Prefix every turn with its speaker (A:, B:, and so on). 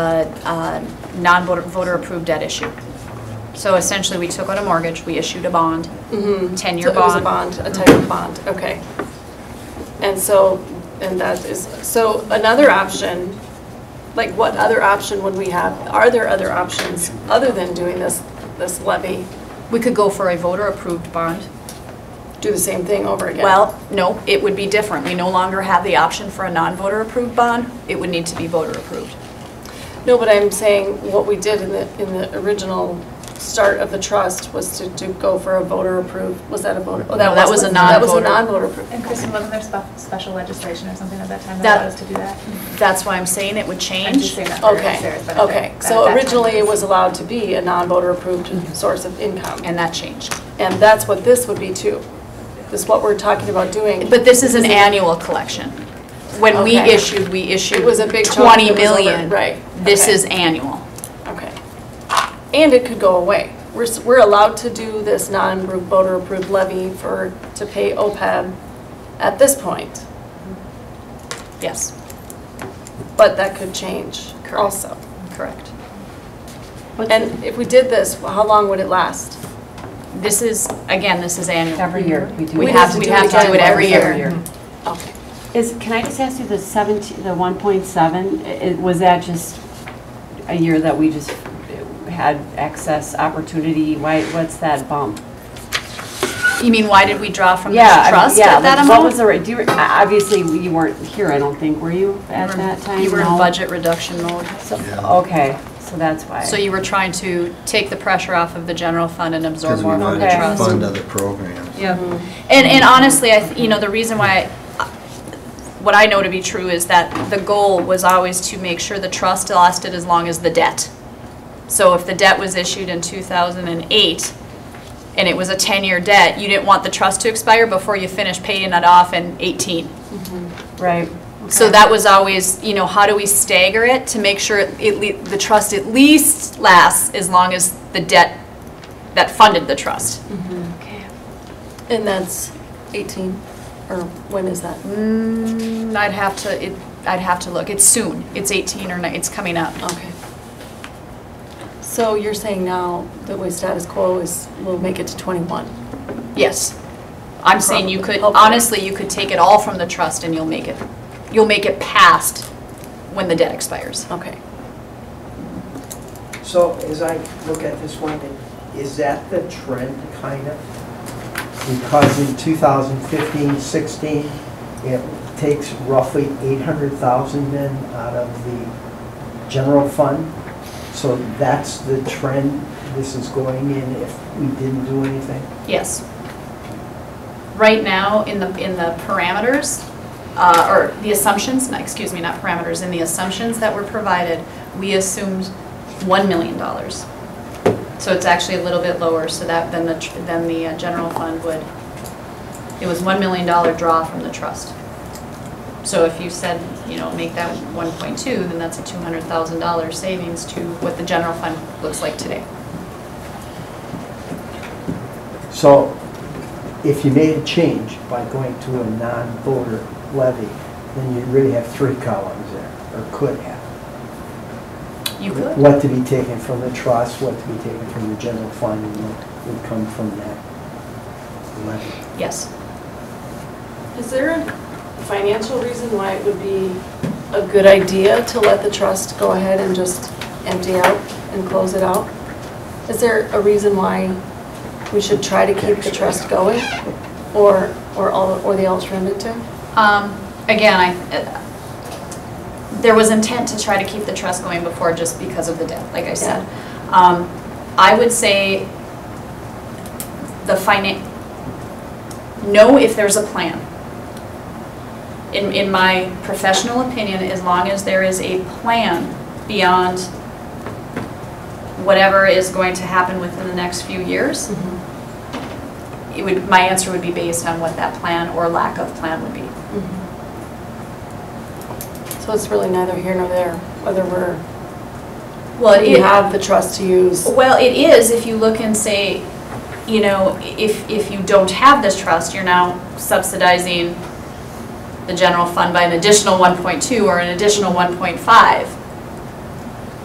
A: non-voter approved debt issue. So essentially, we took out a mortgage, we issued a bond, 10-year
B: Mm-hmm. So It was a
A: bond.
B: bond, a type of bond, okay. And so, and that is, so another option, like what other option would we have? Are there other options other than doing this, this levy?
A: We could go for a voter approved bond.
B: Do the same thing over again?
A: Well, no, it would be different. We no longer have the option for a non-voter approved bond. It would need to be voter approved.
B: No, but I'm saying what we did in the, in the original start of the trust was to, to go for a voter approved, was that a voter? oh,
A: No, that was a
B: That was a
A: non-voter.
B: non-voter approved.
C: And Kristen, wasn't there spe- special legislation or something at that time
A: That-
C: that allowed us to do that?
A: That's why I'm saying it would
C: I'm just
A: change.
C: saying that for
B: Okay,
C: Sarah's benefit.
B: okay.
C: That- that
B: So
C: time
B: originally it was allowed to be a non-voter approved source of income.
A: And that changed.
B: And that's what this would be too. This is what we're talking about doing.
A: But this is an annual collection. When we
B: Okay.
A: issued, we issued
B: It was a big chunk
A: 20
B: that was over-
A: million.
B: right,
A: This
B: okay.
A: is annual.
B: Okay. And it could go away. We're, s- we're allowed to do this non-voter approved levy for, to pay OPEB at this point,
A: Yes,
B: but that could change also.
A: correct.
B: And if we did this, how long would it last?
A: This is, again, this is annual.
D: Every year, we do.
A: We
D: it.
A: have, we have to do it every year. Mm-hmm.
B: Okay.
D: Is, can I just ask you, the 17, the 1.7, i- i- was that just a year that we just had excess opportunity? Why, what's that bump?
A: You mean, why did we draw from the
D: Yeah, I-
A: trust
D: yeah,
A: at that
D: like,
A: amount?
D: What was the, ra- do you, re- obviously, you weren't here, I don't think, were you, at that time?
A: You were in
D: No?
A: budget reduction mode.
D: So- Okay, so that's why.
A: So you were trying to take the pressure off of the general fund and absorb
E: Because we
A: more from
E: wanted
A: the
D: Okay.
E: to
A: trust.
E: fund other programs.
A: Yeah. And, and honestly, I, th- you know, the reason why, I- what I know to be true is that the goal was always to make sure the trust lasted as long as the debt. So if the debt was issued in 2008, and it was a 10-year debt, you didn't want the trust to expire before you finished paying it off in 18.
D: Right.
A: So that was always, you know, how do we stagger it to make sure it- it, le- the trust at least lasts as long as the debt that funded the trust?
B: And that's 18, or when is that?
A: Mm, I'd have to, it, I'd have to look. It's soon. It's 18 or, ni- it's coming up.
B: Okay. So you're saying now the way status quo is, we'll make it to 21?
A: Yes. I'm saying you could,
B: Hopefully.
A: honestly, you could take it all from the trust and you'll make it, you'll make it past when the debt expires.
B: Okay.
F: So as I look at this one, is that the trend kind of? Because in 2015, 16, it takes roughly 800,000 then out of the general fund. So that's the trend this is going in if we didn't do anything.
A: Yes. Right now, in the, in the parameters, uh, or the assumptions, no, excuse me, not parameters, in the assumptions that were provided, we assumed $1 million. So it's actually a little bit lower, so that, than the, tr- than the uh, general fund would. It was $1 million draw from the trust. So if you said, you know, make that 1.2, then that's a $200,000 savings to what the general fund looks like today.
F: So if you made a change by going to a non-voter levy, then you really have three columns there, or could have.
A: You could.
F: What to be taken from the trust, what to be taken from the general fund, and what would come from that levy.
A: Yes.
B: Is there a financial reason why it would be a good idea to let the trust go ahead and just empty out and close it out? Is there a reason why we should try to keep the trust going? Or, or all, or the alternative?
A: Um, Again, I, uh, there was intent to try to keep the trust going before just because of the debt, like I said. Um, I would say the finan, know if there's a plan. In, in my professional opinion, as long as there is a plan beyond whatever is going to happen within the next few years,
B: Mm-hmm.
A: it would, my answer would be based on what that plan or lack of plan would be.
B: Mm-hmm. So it's really neither here nor there, whether we're,
A: Well,
B: we
A: it,
B: have the trust to use.
A: well, it is if you look and say, you know, if, if you don't have this trust, you're now subsidizing the general fund by an additional 1.2 or an additional 1.5.